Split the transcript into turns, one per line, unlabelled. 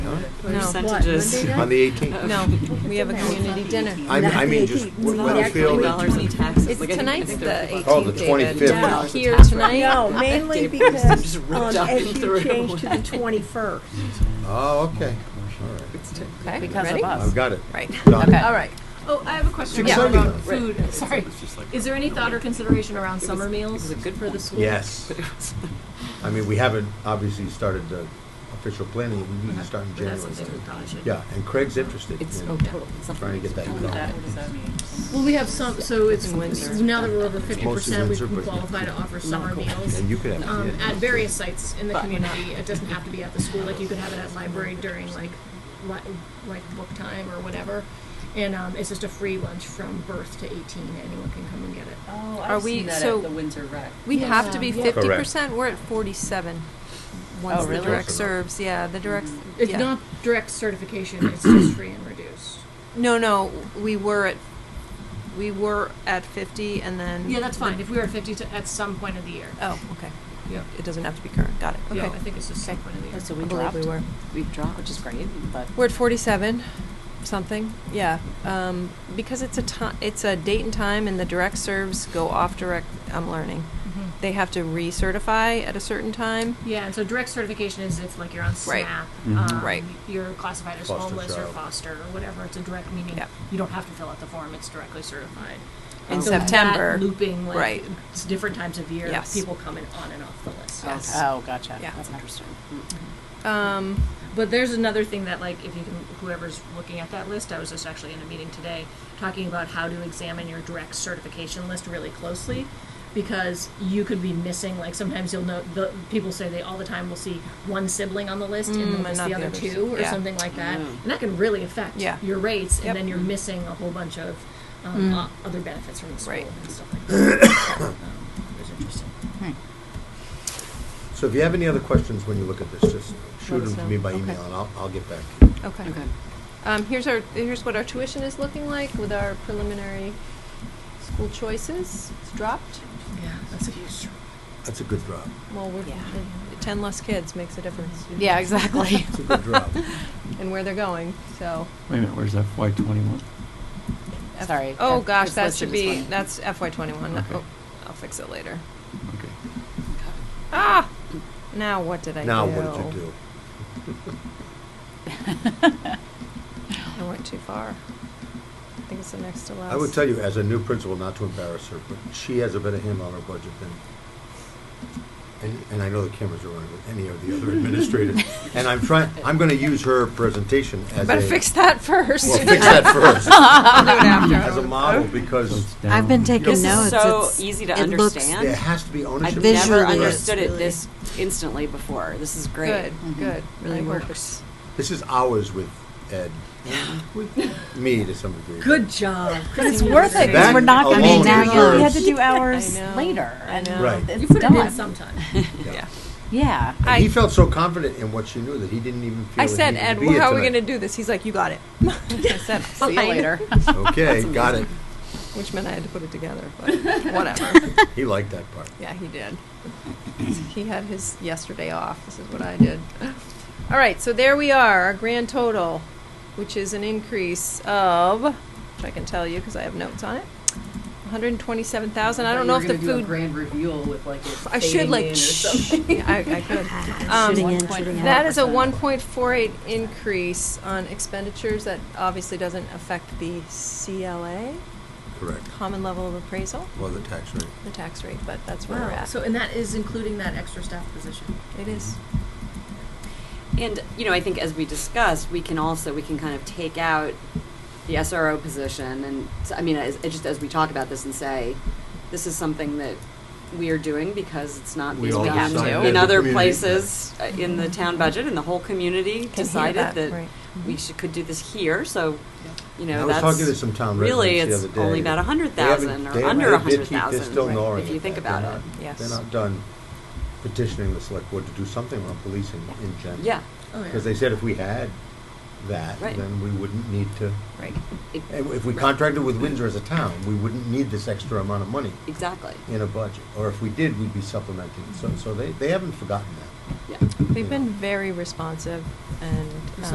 Percentages.
Monday
On the eighteenth?
No, we have a community dinner.
I mean, I mean, just
Not the
Weathersfield.
$20
and-
in taxes.
It's
Like, I think- I think
tonight's
they're
the
$15.
Oh, the 25th.
Yeah,
No,
Here
No,
tonight.
No, mainly
Dave Bruce
because,
just ripped
um,
up
as
and
you
threw it
changed to the
away.
21st.
Oh, okay, all right.
Okay,
Because of
ready?
us.
I've got it.
Right.
Done.
Okay.
All right.
Oh, I have a question
Yeah.
about
Right.
food. Sorry. Is there any thought or consideration around summer
Is
meals?
it good for the school?
Yes.
But it was-
I mean, we haven't obviously started the official planning, we need to start in
But that's
January.
something we probably should.
Yeah, and Craig's interested
It's,
in
oh, totally. Something
trying to get that
that's-
done.
Well, we have some, so it's,
Windsor.
now that we're over fifty
Mostly
percent, we
Windsor,
can
but-
qualify to offer summer
cool.
meals.
And you could have.
Um,
yeah.
at various sites in the
But we're not-
community, it doesn't have to be at the school, like you could have it at library during like, li- like book time or whatever. And, um, it's just a free lunch from birth to eighteen, anyone can come and get it.
Oh,
Are
I've
we-
seen that
so-
at the Windsor Rec.
We have to be
Yeah.
fifty percent, we're at forty-seven. Once the
really?
direct serves, yeah, the direct,
It's
yeah.
not direct certification, it's just free and reduced.
No, no, we were at, we were at fifty and then.
Yeah, that's fine, if we were fifty to, at some point of the year.
Oh, okay.
Yeah.
It doesn't have to be current, got it,
Yeah,
okay.
I think it's just some point of the year.
So
I
we
believe
dropped.
we were.
We dropped, which is great, but.
We're at forty-seven, something, yeah. Um, because it's a ti- it's a date and time and the direct serves go off direct, I'm learning.
Mm-hmm.
They have to recertify at a certain time.
Yeah, and so direct certification is if like you're on
Right.
SNAP,
Mhm.
um,
Right.
you're classified as
Foster
homeless or
child.
foster or whatever. It's a direct meaning.
Yeah.
You don't have to fill out the form; it's directly certified.
In
And so
September,
that looping like
right.
it's different times of year.
Yes.
people coming on and off the list. Mm-hmm.
Yes.
Oh, gotcha.
Yeah.
That's interesting.
Hmm.
Um,
But there's another thing that, like, if you can, whoever's looking at that list, I was just actually in a meeting today talking about how to examine your direct certification list really closely because you could be missing like sometimes you'll know the people say they all the time will see one sibling on the list and
Mm,
they'll
and
miss
not
the
the
other
others.
two or
Yeah.
something like that
Mm.
and that can really affect
Yeah.
your rates
Yep.
and then you're missing a whole bunch of um,
Mm.
o- other benefits from the school
Right.
and stuff like that um, it was interesting
Hmm.
So if you have any other questions when you look at this, just shoot
Let us
them to me
know.
by
Okay.
email and I'll, I'll get back to you.
okay.
Okay.
Um, here's our, here's what our tuition is looking like with our preliminary school choices. It's dropped.
yeah that's a huge
That's a good drop.
Well, we're,
Yeah.
the- ten less kids makes a difference.
Yeah, exactly.
It's a good drop.
And where they're going, so.
Wait a minute, where's FY twenty-one?
F-
Sorry,
Oh,
that-
gosh,
it's
that
listed
should
as
be,
one.
that's FY twenty-one.
Okay.
Oh, I'll fix it later.
Okay.
Ah! Now what did I do?
Now, what did you do?
I went too far. I think it's the next to last.
I would tell you, as a new principal, not to embarrass her, but she has a better handle on her budget than, and, and I know the cameras are on with any of the other administrators. And I'm trying, I'm gonna use her presentation as a.
Better fix that first.
Well, fix that first,
I'll do it after.
as a model,
So
because
it's
I've been
down.
taking
This is
notes.
so
It's-
easy
it looks-
there has to be
I've
ownership.
never
Visually, it's
understood it
really-
this instantly before. This is great.
Good, good.
Really
I worked.
works.
This is ours with Ed, with me to some degree.
Good job.
It's worth it,
'cause That we're not gonna alone be down. deserves-
We had to do
I
ours
know.
later,
I
and
know.
Right.
it's
you put it in
done.
sometime
Yeah.
Yeah.
And he felt so confident in what she knew that he didn't even feel.
I said,
that
Ed,
he could be
how are we
it
going to
tonight."
do this? He's like, you got it. I said,
See you
"Fine."
later.
Okay, got it.
Which meant I had to put it together, but whatever.
He liked that part.
yeah, he did. he had his yesterday off. This is what I did. All right, so there we are, our grand total, which is an increase of, which I can tell you because I have notes on it, 127,000. I don't know if the food.
Grand reveal with like.
I should like. Yeah, I, I could. Um,
Shooting in, shooting out.
That is a one point four eight increase on expenditures that obviously doesn't affect the CLA,
Correct.
common level of appraisal,
Well, the tax rate.
the tax rate, but that's where we're at.
so and that is including that extra staff position
It is.
And, you know, I think as we discussed, we can also, we can kind of take out the SRO position and, s- I mean, as, it just as we talk about this and say, this is something that we are doing because it's not
We
being
all
done
decided as
in
a
other
community.
places uh, in the town budget and the whole community
hear
decided
that,
that,
right. Mm-hmm.
we should, could do this here, so, you know,
I was
that's
talking to some town
really
residents the
it's
other day.
only about a hundred thousand or under a hundred thousand if you think about it.
Yes.
They're not done petitioning the select board to do something on policing in general.
Yeah,
oh yeah
Because they said if we had that,
Right.
then we wouldn't need to,
Right.
it-
if if we contracted with Windsor as a town, we wouldn't need this extra amount of money
exactly.
in a budget. Or if we did, we'd be supplementing. So, so they, they haven't forgotten that.
Yeah.
They've been very responsive and